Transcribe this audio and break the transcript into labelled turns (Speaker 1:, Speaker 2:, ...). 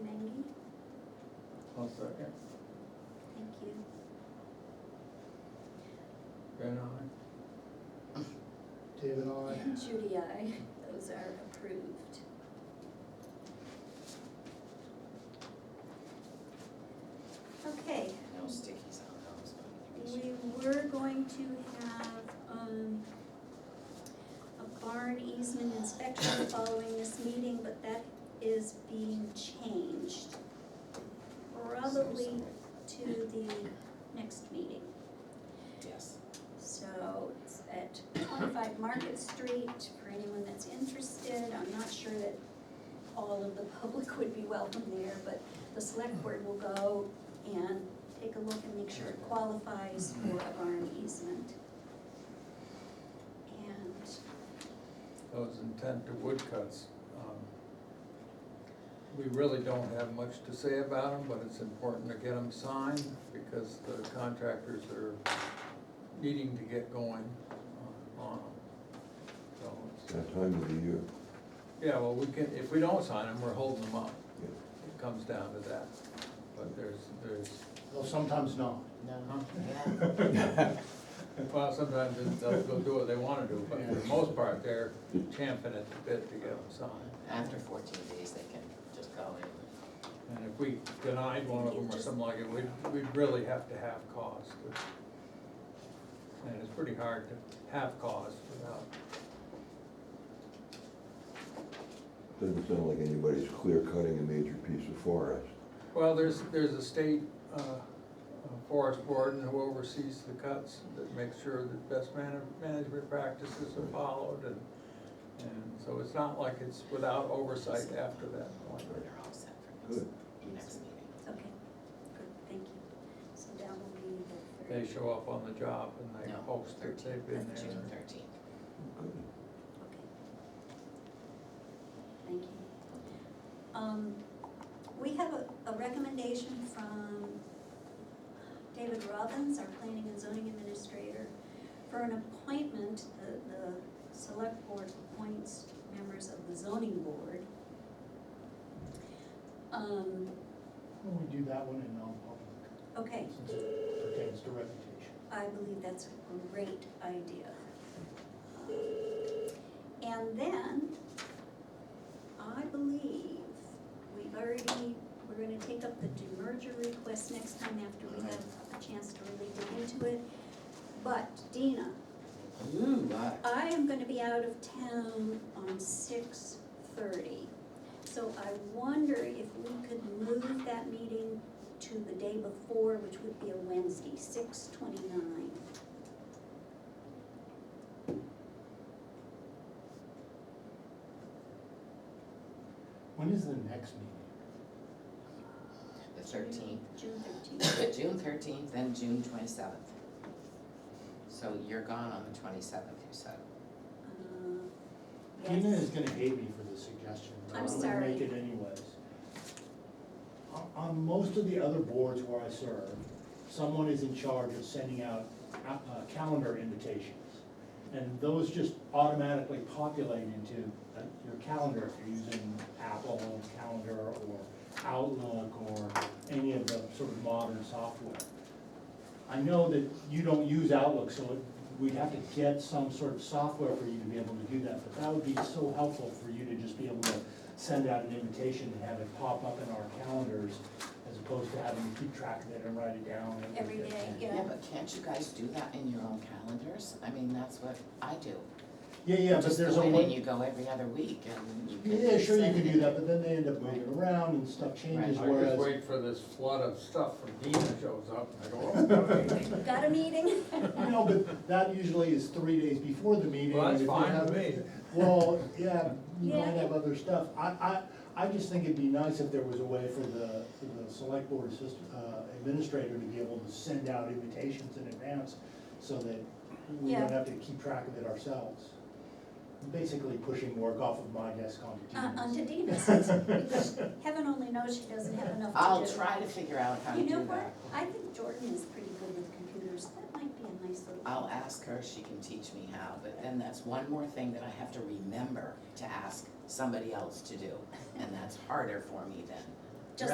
Speaker 1: I'll second.
Speaker 2: Thank you.
Speaker 1: Ben, aye.
Speaker 3: David, I.
Speaker 2: Judy, I, those are approved. Okay,
Speaker 4: No stickies on those, but I think we
Speaker 2: we
Speaker 4: should.
Speaker 2: were going to have, um, a barn easement inspection following this meeting, but that is being changed. Probably to the next meeting.
Speaker 4: Yes.
Speaker 2: So it's at twenty-five Market Street, for anyone that's interested, I'm not sure that all of the public would be welcome there, but the select board will go and take a look and make sure it qualifies for a barn easement. And
Speaker 1: Those intent to woodcuts. um, We really don't have much to say about them, but it's important to get them signed because the contractors are needing to get going uh, on them. So, it's-
Speaker 5: That time of the year,
Speaker 1: yeah, well, we can, if we don't sign them, we're holding them up.
Speaker 5: yeah.
Speaker 1: It comes down to that. But there's, there's,
Speaker 3: Well, sometimes not.
Speaker 1: Huh?
Speaker 4: Yeah.
Speaker 1: well, sometimes they'll they'll do what they wanna do, but for the most part, they're champing at the bit to get them signed.
Speaker 4: After fourteen days, they can just go in.
Speaker 1: And if we denied one of them or something like it, we'd, we'd really have to have cause. to- And it's pretty hard to have cause without,
Speaker 5: Doesn't sound like anybody's clear cutting a major piece of forest.
Speaker 1: well, there's, there's a state, uh, uh, forest board and who oversees the cuts that makes sure that best man, management practices are followed and, and so it's not like it's without oversight after that point.
Speaker 4: They're all set for next,
Speaker 5: Good.
Speaker 4: next meeting.
Speaker 2: Okay, good, thank you. So that will be the
Speaker 1: They
Speaker 2: third.
Speaker 1: show up on the job and they
Speaker 4: No,
Speaker 1: post that they've been
Speaker 4: That's June
Speaker 1: there.
Speaker 4: thirteenth.
Speaker 5: Good.
Speaker 2: Okay. Thank you. Um, we have a, a recommendation from David Robbins, our planning and zoning administrator, for an appointment, the, the select board appoints members of the zoning board. Um,
Speaker 3: Well, we do that one in non-public,
Speaker 2: okay,
Speaker 3: since it pertains to reputation.
Speaker 2: I believe that's a great idea. And then, I believe we've already, we're gonna take up the demerger request next time after we have a chance to really dig into it. But Dina,
Speaker 4: Ooh, uh,
Speaker 2: I am gonna be out of town on six thirty. So I wonder if we could move that meeting to the day before, which would be a Wednesday, six twenty-nine.
Speaker 3: When is the next meeting?
Speaker 4: the thirteenth,
Speaker 2: June thirteenth.
Speaker 4: June thirteenth, then June twenty-seventh. So you're gone on the twenty-seventh, you said.
Speaker 3: Dina
Speaker 2: Uh, Yes,
Speaker 3: is gonna hate me for this suggestion, but
Speaker 2: I'm
Speaker 3: I'm gonna make
Speaker 2: sorry.
Speaker 3: it anyways. On, on most of the other boards where I serve, someone is in charge of sending out, uh, calendar invitations. And those just automatically populate into uh, your calendar if you're using Apple Calendar or Outlook or any of the sort of modern software. I know that you don't use Outlook, so it- we'd have to get some sort of software for you to be able to do that, but that would be so helpful for you to just be able to send out an invitation and have it pop up in our calendars, as opposed to having to keep track of it and write it down. and-
Speaker 2: Every day,
Speaker 4: Yeah,
Speaker 2: yeah.
Speaker 4: but can't you guys do that in your own calendars? I mean, that's what I do.
Speaker 3: Yeah, yeah, but
Speaker 4: Just
Speaker 3: there's a
Speaker 4: go in
Speaker 3: way.
Speaker 4: and you go every other week and you can.
Speaker 3: Yeah, sure, you
Speaker 4: send
Speaker 3: can
Speaker 4: it
Speaker 3: do
Speaker 4: in.
Speaker 3: that, but then they end up moving around and stuff changes,
Speaker 1: I just
Speaker 3: whereas,
Speaker 1: wait for this flood of stuff from Dina shows up and I go, oh, okay.
Speaker 2: Got a meeting?
Speaker 3: you know, but that usually is three days before the meeting.
Speaker 1: Well,
Speaker 3: and
Speaker 1: that's
Speaker 3: if you
Speaker 1: fine
Speaker 3: have-
Speaker 1: with me.
Speaker 3: Well, yeah, you
Speaker 2: Yeah.
Speaker 3: might have other stuff. I, I, I just think it'd be nice if there was a way for the, for the select board assist, uh, administrator to be able to send out invitations in advance so that we
Speaker 2: Yeah.
Speaker 3: don't have to keep track of it ourselves. Basically pushing work off of my desk onto
Speaker 2: Uh,
Speaker 3: Dina's.
Speaker 2: onto Dina, since, because heaven only knows she doesn't have enough to do.
Speaker 4: I'll try to figure out how to
Speaker 2: You
Speaker 4: do
Speaker 2: know
Speaker 4: that.
Speaker 2: what? I think Jordan is pretty good with computers. That might be a nice little.
Speaker 4: I'll ask her if she can teach me how, but then that's one more thing that I have to remember to ask somebody else to do, and that's harder for me then.